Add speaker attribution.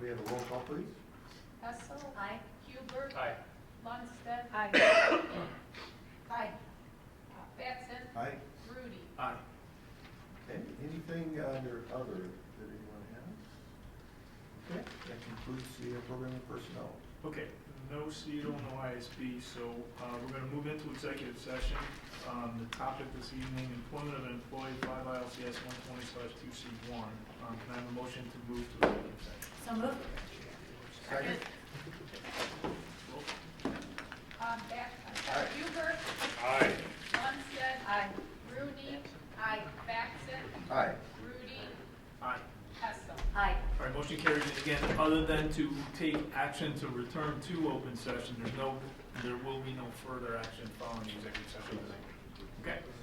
Speaker 1: We have a roll call, please.
Speaker 2: Hessel.
Speaker 3: Aye.
Speaker 2: Hubert.
Speaker 4: Aye.
Speaker 2: Lundstedt.
Speaker 3: Aye.
Speaker 2: Aye. Uh, Batson.
Speaker 1: Aye.
Speaker 2: Rudy.
Speaker 4: Aye.
Speaker 1: Okay, anything under other that anyone has? Okay, that concludes the uh, program of personnel.
Speaker 4: Okay, no CO, no ISB, so uh, we're going to move into executive session. Um, The topic this evening, employment of an employee, five ILCS one twenty two C one. Um, Can I have a motion to move to executive session?
Speaker 3: So moved.
Speaker 1: Second.
Speaker 2: Um, Batson.
Speaker 1: Aye.
Speaker 2: Hubert.
Speaker 4: Aye.
Speaker 2: Lundstedt.
Speaker 3: Aye.
Speaker 2: Rudy. Aye. Batson.
Speaker 1: Aye.
Speaker 2: Rudy.
Speaker 4: Aye.
Speaker 2: Hessel.
Speaker 3: Aye.
Speaker 4: All right, motion carries. And again, other than to take action to return to open session, there's no, there will be no further action following the executive session. Okay?